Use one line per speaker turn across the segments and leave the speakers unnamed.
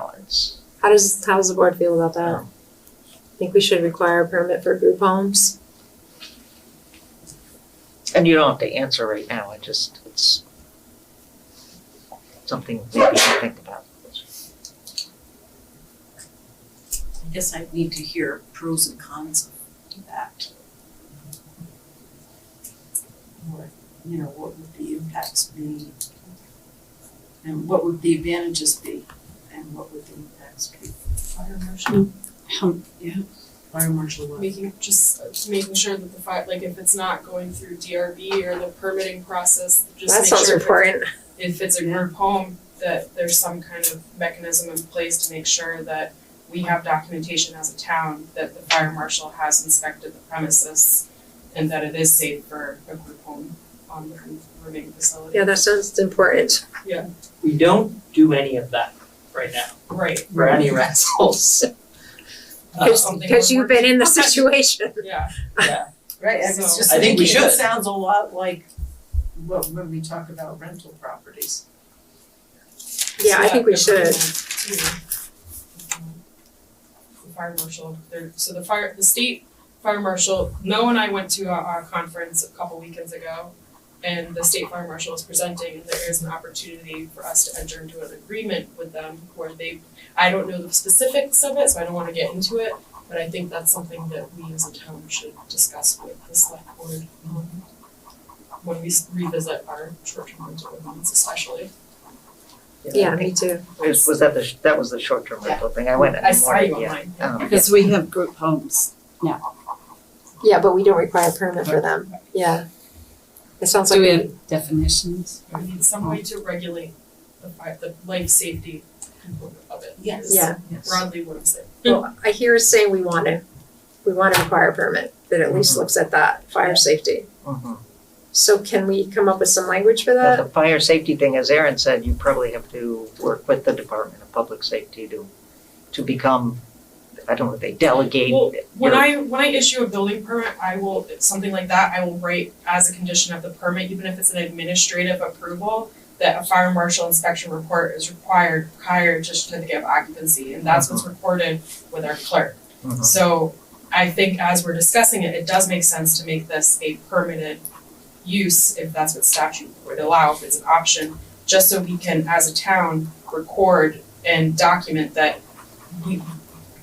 allowance.
How does, how does the board feel about that?
Um,
I think we should require a permit for group homes.
And you don't have to answer right now, I just, it's something maybe to think about.
I guess I need to hear pros and cons of that. Or, you know, what would the impacts be? And what would the advantages be? And what would the impacts be?
Fire marshal,
Um, yeah, fire marshal what?
making, just making sure that the fire, like if it's not going through DRB or the permitting process, just
That
make sure.
sounds
if-
important.
If it's a group home, that there's some kind of mechanism in place to make sure that we have documentation as a town that the fire marshal has inspected the premises and that it is safe for a group home on the remaining facility.
Yeah, that sounds important.
We don't do any of that right now
Right,
for any
Oh, uh,
rentals.
Cause,
something
'cause you've
we're-
been in the situation.
yeah.
Right, I was
So-
just
I think we
thinking, it
should.
sounds a lot like what, when we talk about rental properties.
Yeah, I think we should.
The fire marshal, there, so the fire, the state fire marshal, Noah and I went to a, a conference a couple weekends ago. And the state fire marshal is presenting, and there is an opportunity for us to enter into an agreement with them where they, I don't know the specifics of it, so I don't wanna get into it. But I think that's something that we as a town should discuss with the select board. um, When we s- revisit our short-term rental ordinance especially.
Yeah, me too.
Was was that the, sh- that was the short-term rental thing, I went
I
and
saw you
wanted, yeah.
online.
Um,
Because we have group homes.
Yeah, but we don't require a permit for them. Yeah. It sounds like
Do we
we,
have definitions?
We need some way to regulate the fire, the life safety component of it.
Yes.
yeah.
Broadly what I'm saying.
Well, I hear us saying we want to, we want to require a permit that at
Mm-hmm.
least looks at that, fire safety.
mhm.
So can we come up with some language for
But
that?
the fire safety thing, as Aaron said, you probably have to work with the Department of Public Safety to, to become, I don't know, they delegate.
Well, When
your-
I, when I issue a building permit, I will, something like that, I will write as a condition of the permit, even if it's an administrative approval, that a fire marshal inspection report is required prior to certificate of occupancy, and that's what's recorded with our clerk.
Mhm.
So I think as we're discussing it, it does make sense to make this a permitted use if that's what statute would allow, if it's an option, just so we can, as a town, record and document that we,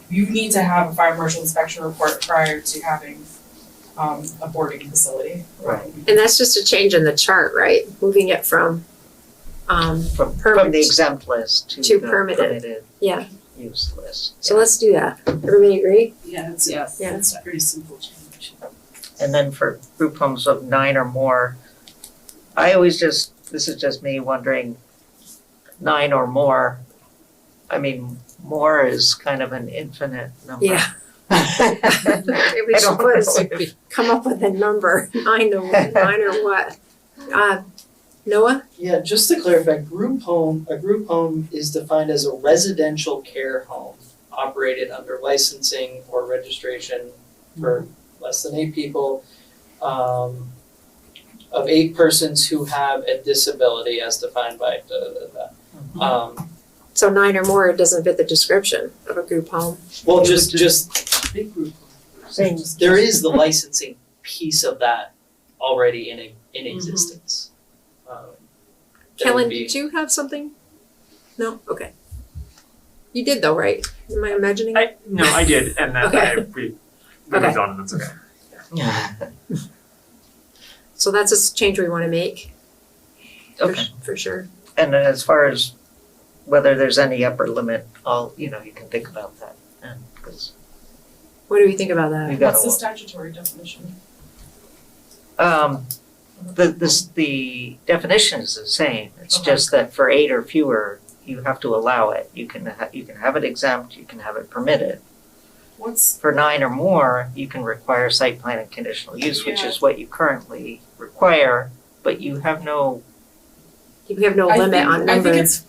you need to have a fire marshal inspection report prior to having um a boarding facility.
Right.
And that's just a change in the chart, right? Moving it from, um,
From, from
Permit.
the exempt list to
To
the
permitted.
permitted
yeah.
use list.
So let's do that. Everybody agree?
Yeah, it's,
Yes.
Yeah.
it's a pretty simple change.
And then for group homes of nine or more, I always just, this is just me wondering, nine or more, I mean, more is kind of an infinite number.
Yeah.
I
Maybe we should
don't know
put,
if,
come up with a number, nine to one, nine or what? Uh, Noah?
Yeah, just to clarify, group home, a group home is defined as a residential care home operated under licensing or registration for less than eight people. Um, of eight persons who have a disability as defined by da da da da. Um,
So nine or more doesn't fit the description of a group home.
well, just, just,
Big group.
Same.
there is the licensing piece of that already in, in existence. Um, that would
Kellen,
be-
did you have something? No? Okay. You did though, right? Am I imagining?
I no, I did, and then I we we
Okay.
moved on, and that's okay.
So that's a s- change we want to make. for
okay.
s- For sure.
And then as far as whether there's any upper limit, I'll, you know, you can think about that. And, cause
What do we think about
we
that?
gotta.
What's the statutory definition?
Um, the, this, the definition is the same, it's just that for eight or fewer, you have to allow it. You can, ha- you can have it exempt, you can have it permitted.
What's,
For nine or more, you can require site plan and conditional use, which
Yeah.
is what you currently require, but you have no,
We have no
I
limit
think-
on
I think
number.
it's,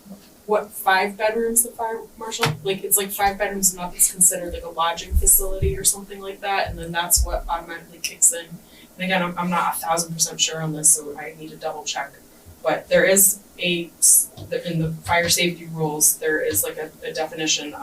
what, five bedrooms, the fire marshal, like, it's like five bedrooms and up is considered like a lodging facility or something like that, and then that's what automatically kicks in. And again, I'm, I'm not a thousand percent sure on this, so I need to double check But there is a, s- in the fire safety rules, there is like a, a definition